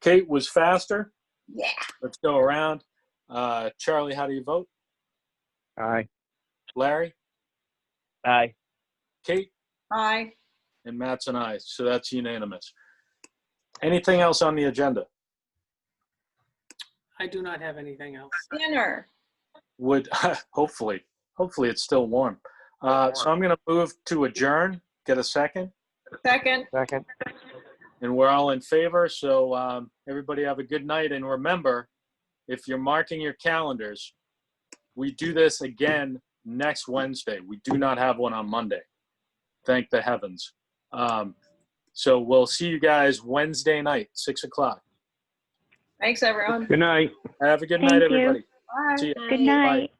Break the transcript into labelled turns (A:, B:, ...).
A: Kate was faster.
B: Yeah.
A: Let's go around. Uh, Charlie, how do you vote?
C: Aye.
A: Larry,
C: Aye.
A: Kate,
B: Aye.
A: and Matt's and I. So that's unanimous. Anything else on the agenda?
D: I do not have anything else.
B: Dinner.
A: Would hopefully, hopefully it's still warm. Uh, so I'm going to move to adjourn. Get a second,
B: Second.
C: Second.
A: and we're all in favor. So um, everybody have a good night, and remember, if you're marking your calendars, we do this again next Wednesday. We do not have one on Monday. Thank the heavens. Um, so we'll see you guys Wednesday night, six o'clock.
B: Thanks, everyone.
C: Good night.
A: Have a good
E: Thank
A: night,
E: you.
A: everybody.
B: Bye.
A: See ya.
E: Good night.